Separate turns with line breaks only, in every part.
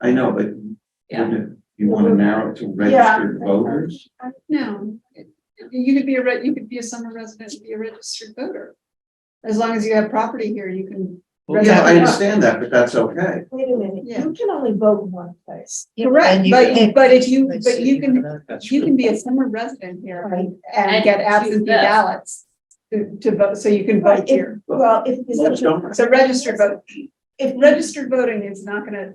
I know, but
Yeah.
wouldn't- you want to narrow it to registered voters?
No, you could be a, re- you could be a summer resident and be a registered voter. As long as you have property here, you can.
Well, yeah, I
Registered.
understand that, but that's okay.
Wait a minute,
Yeah.
you can only vote in one place.
Correct,
And you
but,
can-
but if you, but you can,
That's
you can be a summer resident here
Right.
and get absentee ballots to, to vote, so you can vote here.
Well, if, is
Well, don't-
that-
So registered vote, if registered voting is not gonna,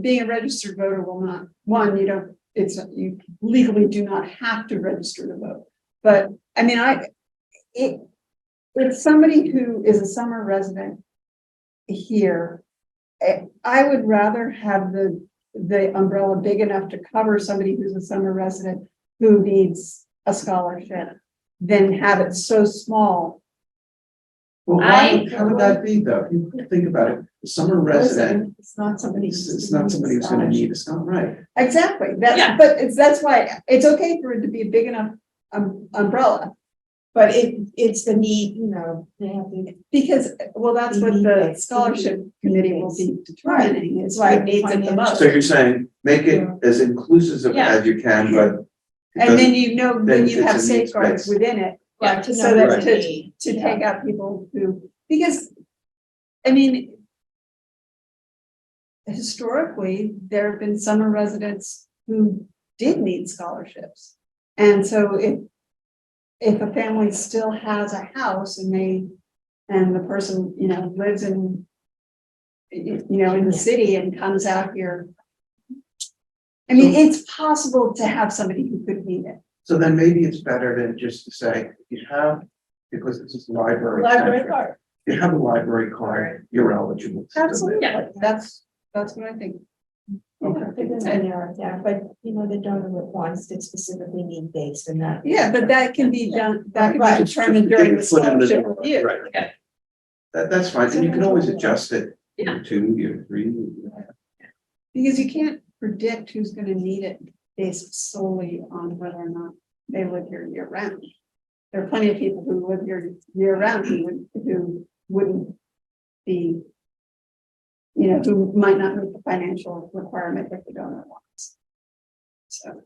being a registered voter will not, one, you don't, it's, you legally do not have to register to vote. But, I mean, I, it, if somebody who is a summer resident here, eh, I would rather have the, the umbrella big enough to cover somebody who's a summer resident who needs a scholarship than have it so small.
Well, why,
I-
would- how would that be though? If You think about it, a summer resident,
It's not somebody.
it's,
who's
it's not somebody who's gonna need, it's not right.
Exactly,
Yeah.
that's, but it's, that's why, it's okay for it to be a big enough um umbrella.
But it, it's the need, you know, they have to.
Because, well, that's what the scholarship committee will be determining, is why it needs it the most.
So you're saying, make it as inclusive
Yeah.
as you can, but. it
And then
doesn't-
you know,
then
then you
it's
have
a needs
safeguards
based.
within it.
Yeah.
to
So
know
that
the
to,
need.
to
Yeah.
take out people who, because, I mean, historically, there have been summer residents who did need scholarships. And so if, if a family still has a house and they, and the person, you know, lives in, you you know, in the city and comes out here. I mean, it's possible to have somebody who could need it.
So then maybe it's better to just to say, you have, because this is library.
Library
centric,
card,
You have a library card, you're eligible. to do it.
absolutely.
Yeah.
That's, that's what I think.
Okay.
They're gonna narrow it down, but you know, the donor wants to specifically need based and that.
Yeah, but that can be done, that can
Right.
be determined during the
Put in the-
scholarship review.
Right.
Okay.
That, that's fine, and you can always adjust it.
Yeah.
Year Two, year three. year-
Because you can't predict who's gonna need it based solely on whether or not they live here year round. There are plenty of people who live here year round who would, who wouldn't be. You know, who might not meet the financial requirement that the donor wants. So,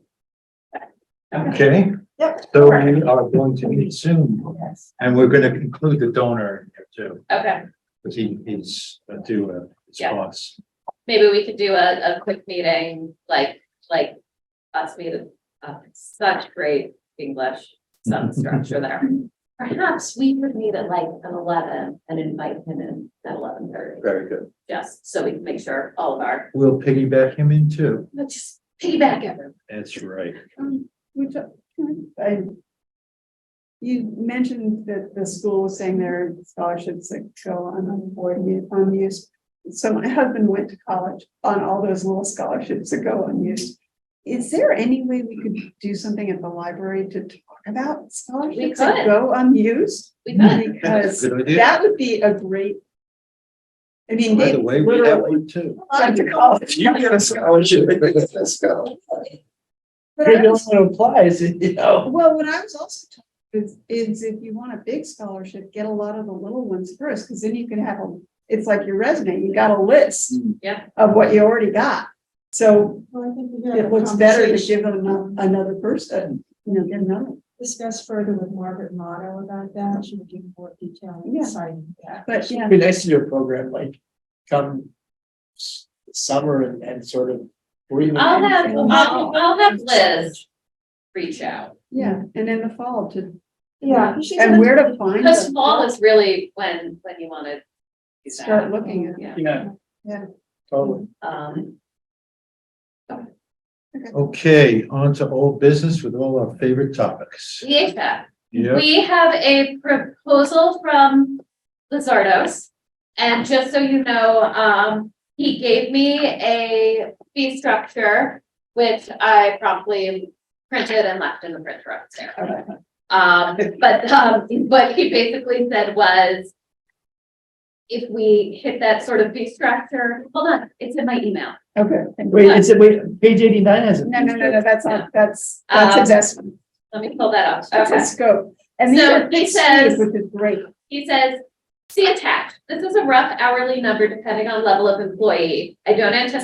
Okay.
Yep.
So we are going to meet soon,
Yes.
and we're gonna conclude the donor here too,
Okay,
because he he's uh, due a
Yeah.
response.
maybe we could do a, a quick meeting, like, like us meeting, uh, such great English, some structure there. Perhaps we could meet at like an eleven and invite him in at eleven thirty,
Very good.
just so we can make sure all of our,
We'll piggyback him in too.
let's just piggyback everyone.
That's right.
um, which, uh, I. You mentioned that the school was saying there are scholarships that go unawarded, unused. So my husband went to college on all those little scholarships that go unused. Is there any way we could do something at the library to talk about scholarships that
could.
go unused?
We could,
Because
Good idea.
that would be a great. I mean,
By
they
the way, we have
literally
one too.
went to college.
You get a scholarship. Let's go.
But I was-
applies, you know.
Well, what I was also told is, is if you want a big scholarship, get a lot of the little ones first, because then you can have a, it's like your resume, you got a list
yeah,
of what you already got. So
Well, I think we have a
it looks better to
conversation.
give them ano- another person, you know, get another.
Discuss further with Margaret Motto about that, she would give more detail
Yeah.
regarding that.
But yeah,
It'd be nice to do a program like come s- summer and, and sort of, or even.
I'll have,
in-
I'll, I'll have Liz reach out,
yeah, and in the fall to,
Yeah. you should
and where to find
because
them,
fall is really when, when you wanna. do that.
start looking at.
Yeah,
Yeah.
Yeah.
Totally.
um,
Okay, on to old business with all our favorite topics.
the HVAC.
Yeah,
We have a proposal from Lizardos. And just so you know, um, he gave me a fee structure, which I promptly printed and left in the printer upstairs. Um, but, um, what he basically said was, if we hit that sort of fee structure, hold on, it's in my email.
Okay.
Wait, is it, wait, page eighty-nine has it?
No, no, no, no, that's not, that's,
Um,
that's investment,
Let me pull that up.
that's a scope. And these
So
are
he
big
says-
cities, Which is great.
He says, see attached. This is a rough hourly number depending on level of employee. I don't anticipate